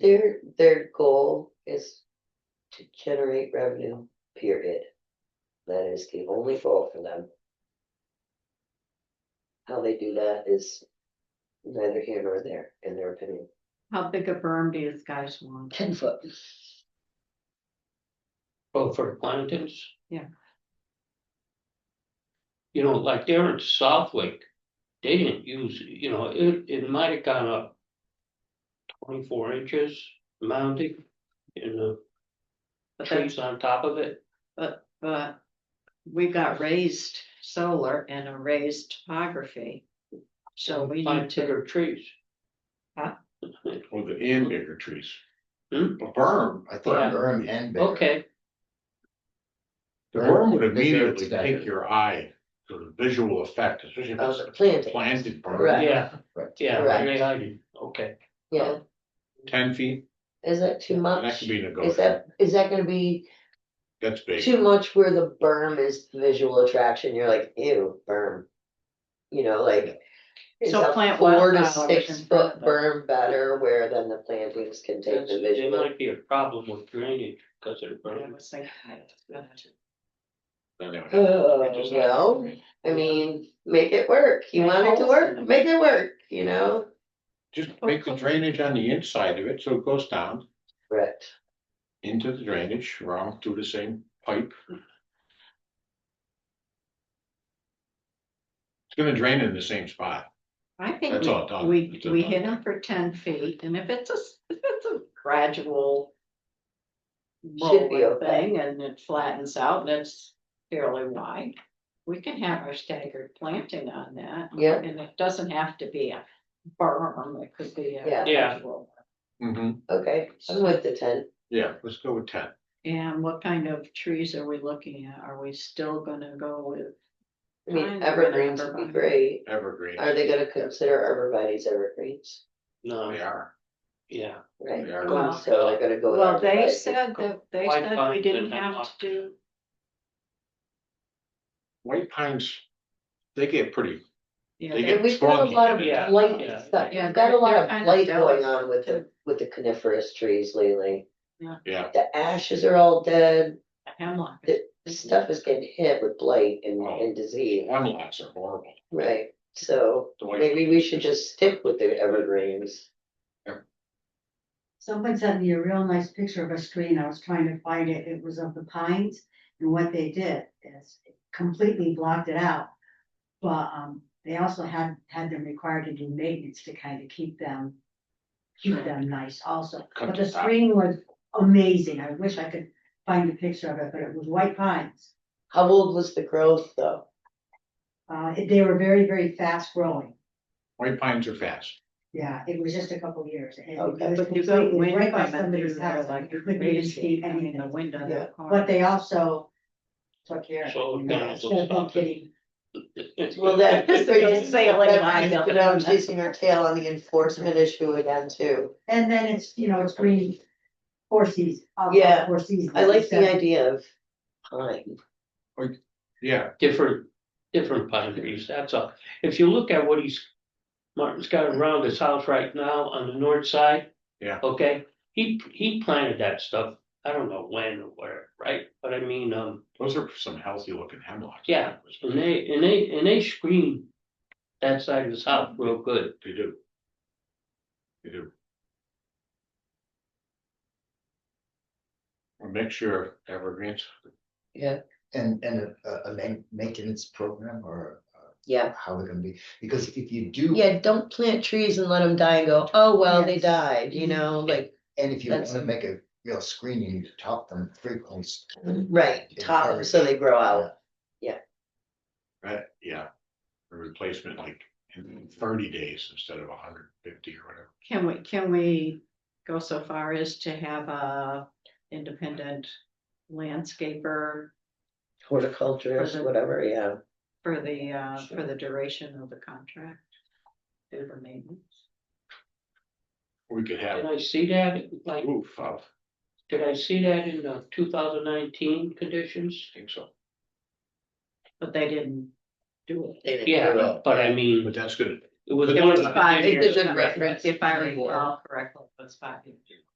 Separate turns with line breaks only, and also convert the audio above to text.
Their, their goal is to generate revenue, period. That is the only goal for them. How they do that is neither here nor there, in their opinion.
How big a berm do you guys want?
Ten foot.
Oh, for plantings?
Yeah.
You know, like there in Southwick, they didn't use, you know, it, it might have gone up twenty-four inches mounting and the
But that's,
trees on top of it.
but we uh, got raised solar and a raised topography. So we
Plant
need to,
bigger trees.
Huh?
With the and bigger trees.
Hmm?
A berm,
I thought
Yeah.
berm and bigger.
Okay,
the berm would
Berm, bigger
immediately
extension.
take your eye for the visual effect, especially if
Of Oh, the
it's
planting.
planted berm,
Right.
yeah,
Right.
yeah,
Correct.
yeah, I do, okay.
Yeah,
ten feet,
is that too
that
much?
could be
Is
negotiable,
that, is that gonna be
that's big.
too much where the berm is visual attraction? You're like, ew, berm. You know, like. Is
So
a
plant
four to
wildflowers
six
in front
foot
of
berm better where then the plantings can take
That's-
the
There
visual?
might be a problem with drainage because of the
I
burn.
was thinking that.
Anyway, I
Oh,
just-
well, I mean, make it work. You want it to work, make it work, you know?
Just make the drainage on the inside of it, so it goes down
Correct.
into the drainage, around through the same pipe. It's gonna drain in the same spot,
I
that's
think
all it does.
we,
It's
we,
a-
we hit them for ten feet and if it's a, s- if it's a gradual
Should be
rolling
okay.
thing and it flattens out and it's fairly wide, we can have our staggered planting on that.
Yeah.
And it doesn't have to be a berm, it could be
Yeah.
a
Yeah.
gradual.
Mhm,
Okay, I'm with the ten.
yeah, let's go with ten.
And what kind of trees are we looking at? Are we still gonna go with?
I mean,
Mine's an
evergreens would be
arborvitae.
great.
Evergreen.
Are they gonna consider arborvitae's evergreens?
They
No,
are.
yeah,
Right,
They are.
Well-
so they're gonna go. with
Well, they
arborvitae.
said that, they
White
said we
pines
didn't
and
have
hemlock.
to do,
White pines, they get pretty,
you know,
they
they-
get.
And we've got a
scroggy
lot of
in that.
blight
Yeah.
stuff.
Yeah,
We've got a lot
they're
of
kind of
blight
delicate
going on with the, with the coniferous trees lately.
Yeah,
The ashes are all dead.
hemlock.
The Stuff is getting hit with blight and, and disease.
hemlocks are horrible.
Right, so
The white-
maybe we should just stick with the evergreens.
Someone sent me a real nice picture of a screen, I was trying to find it, it was of the pines, and what they did is completely blocked it out. But, um, they also had, had them required to do maintenance to kind of keep them, keep them nice also.
Cut
But the
the top.
screen was amazing, I wish I could find a picture of it, but it was white pines.
How old was the growth though?
Uh, it- they were very, very fast growing,
White pines are fast.
yeah, it was just a couple years. and it
Okay.
was
But you go
completely
wind
right by
coming through
somebody's
there
house,
like
you couldn't even see
crazy, I mean,
anything.
the window of
Yeah,
the car.
But they also took care of it.
So
you know,
down
it's just
those-
getting-
Well, that.
Just to go sailing
that-
by them.
You know, chasing our tail on the enforcement issue again too.
And then it's, you know, it's green, four seasons. all
Yeah,
Four seasons.
I like the
instead of-
idea of pine.
Yeah,
different, different pine trees, that's all. If you look at what he's, Martin's got around his house right now on the north side.
Yeah.
Okay, he, he planted that stuff, I don't know when or where, right? But I mean, um,
those are some healthy looking hemlocks.
Yeah. and they, and they, and they screen that side of his house real good.
They do. They do. A mixture of evergreens.
Yeah.
And, and a, a main maintenance program or uh,
Yeah,
how we're gonna be, because if you do,
yeah, don't plant trees and let them die and go, oh, well, they
Yes.
died, you know, like,
and if you
That's-
wanna make a real screen, you need to top them frequently.
right, top 'em so they grow out.
Right, yeah. A replacement like in thirty days instead of hundred fifty or whatever.
Can we, can we go so far as to have a independent landscaper
Horticulturist, whatever, yeah.
for the, uh, for
Sure.
the duration of the contract? Do the maintenance?
We could
Did
have
I see that, like,
roof of,
did I see that in the two thousand nineteen conditions?
I think so.
But they didn't do it.
They didn't grow
Yeah,
out.
but I mean,
But that's good.
it was.
It
one
was
of the
Five
It's a
years-
years,
good reference.
if I recall correctly, it was five years.